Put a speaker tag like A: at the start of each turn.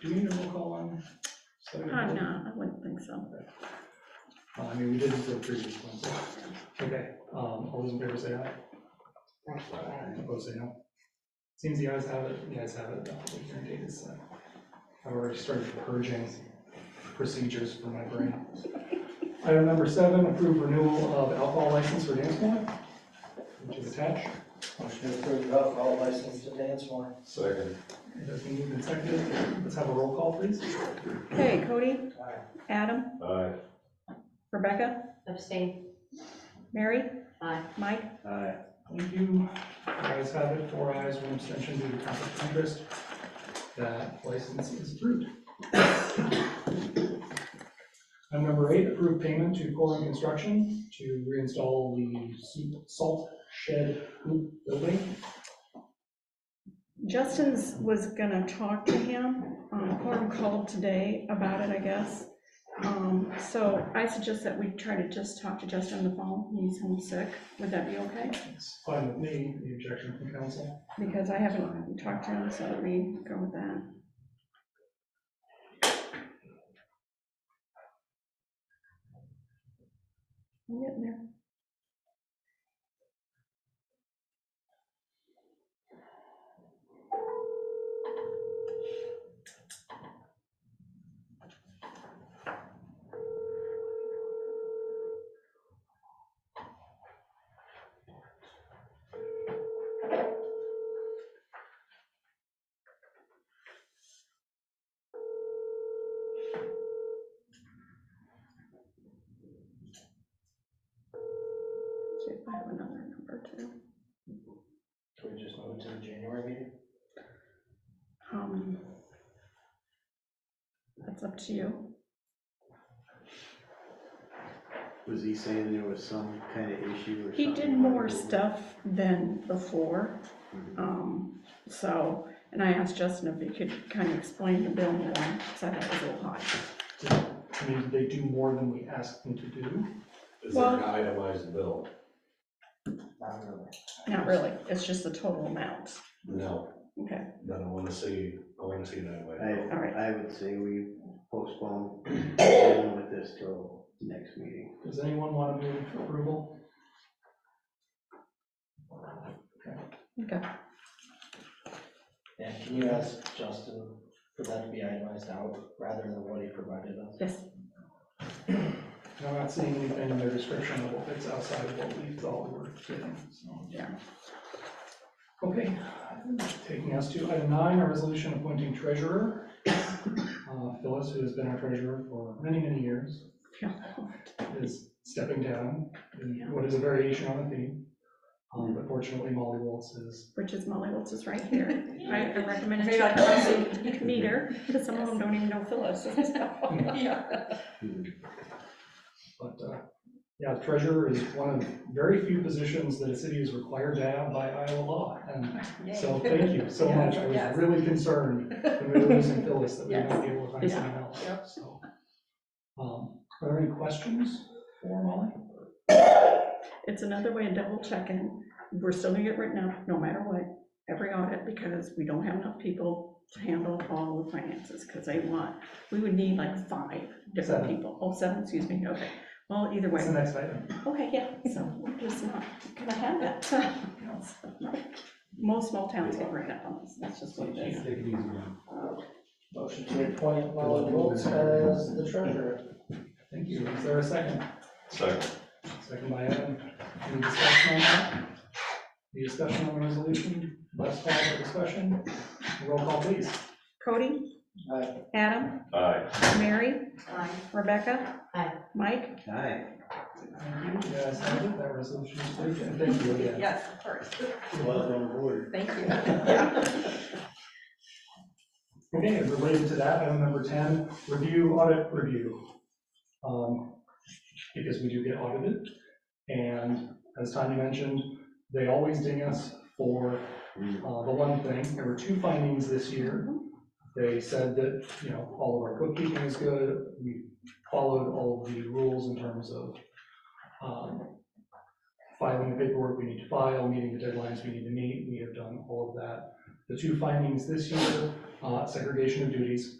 A: do we need a roll call on?
B: i
A: Select
B: Uh,
A: Board?
B: not, I wouldn't think so.
A: Uh, I mean, we did this the previous one, so, okay, um, all those in favor say aye. Opposed, say no. Seems the ayes have it, the ayes have it, the hearing date is, uh, I've already started purging procedures from my brain. Item number seven, approve renewal of alcohol license for dance one, which is attached.
C: Motion to approve the alcohol license to dance one.
D: Second.
A: It has been moved and seconded, let's have a roll call, please.
B: Okay, Cody,
C: Aye.
B: Adam,
D: Aye.
B: Rebecca,
E: Abstain.
B: Mary,
E: Aye.
B: Mike,
D: Aye.
A: Thank you. The Ayes have it, four ayes, one abstention due to conflict of interest. That license is approved. Item number eight, approve payment to Corin Construction to reinstall the soup- salt shed hoop building.
B: Justin's was gonna talk to him, um, Corum called today about it, I guess. Um, so I suggest that we try to just talk to Justin on the phone, he's homesick, would that be okay?
A: It's fine with me, the objection from council.
B: Because I haven't talked to him, so let me go with that. I'm getting there. See if I have another number too.
C: Can we just move to the January meeting?
B: Um, That's up to you.
F: Was he saying there was some kind of issue or something?
B: He did more stuff than before, um, so, and I asked Justin if he could kind of explain the bill more, because I thought it was a little high.
A: I mean, they do more than we asked them to do.
D: Is there an
B: Well-
D: itemized bill?
C: Not really.
B: Not really, it's just the total amount.
D: No,
B: Okay,
D: then I want to see, I want to see that way.
F: I,
B: all right.
F: I would say we postpone dealing with this till next meeting.
A: Does anyone want to move approval?
C: And can you ask Justin for that to be itemized out rather than what he provided us?
B: Yes,
A: I'm not seeing anything in their description of what fits outside of what we thought we were getting, so.
B: Yeah.
A: Okay, taking us to item nine, our resolution appointing treasurer. Uh, Phyllis, who has been our treasurer for many, many years, is stepping down, in what is a variation on a theme. Um, But fortunately, Molly Waltz is,
B: which is Molly Wiltz is right here. I I recommend
E: Very
B: that you guys meet her, because some of them don't even know Phyllis.
A: but, uh, yeah, treasurer is one of very few positions that a city is required to have by Iowa law. And So thank you so much. I was
G: Yes.
A: really concerned when we were losing Phyllis that we would not be able to find
B: Yeah.
A: someone else,
G: Yep.
A: so. Um, Are there any questions for Molly?
B: It's another way of double checking. We're still gonna get written up, no matter what, every audit, because we don't have enough people to handle all the finances, because they want, we would need like five different
A: Seven.
B: people. Oh, seven, excuse me, okay. Well, either
A: What's the
B: way,
A: next item?
B: okay, yeah, so we're just not gonna have that. Most small towns get written up on this, that's just what it is.
C: Motion to appoint Molly Wiltz as the treasurer.
A: Thank you. Is there a second?
D: Second.
A: Second by Evan. Any discussion on that? Any discussion on the resolution? Last call for discussion. Roll call, please.
B: Cody,
C: Aye.
B: Adam,
D: Aye.
B: Mary,
E: Aye.
B: Rebecca.
E: Aye.
B: Mike,
F: Aye.
A: Thank you. Yes, I think that resolution is approved, and thank you again.
G: Yes, of course,
F: Welcome aboard.
G: thank you.
A: Okay, and related to that, item number 10, review audit review. Um, Because we do get audited, and as Tanya mentioned, they always ding us for uh, the one thing. There were two findings this year. They said that, you know, all of our bookkeeping is good, we followed all of the rules in terms of um, filing the paperwork we need to file, meeting the deadlines we need to meet, we have done all of that. The two findings this year uh, segregation of duties,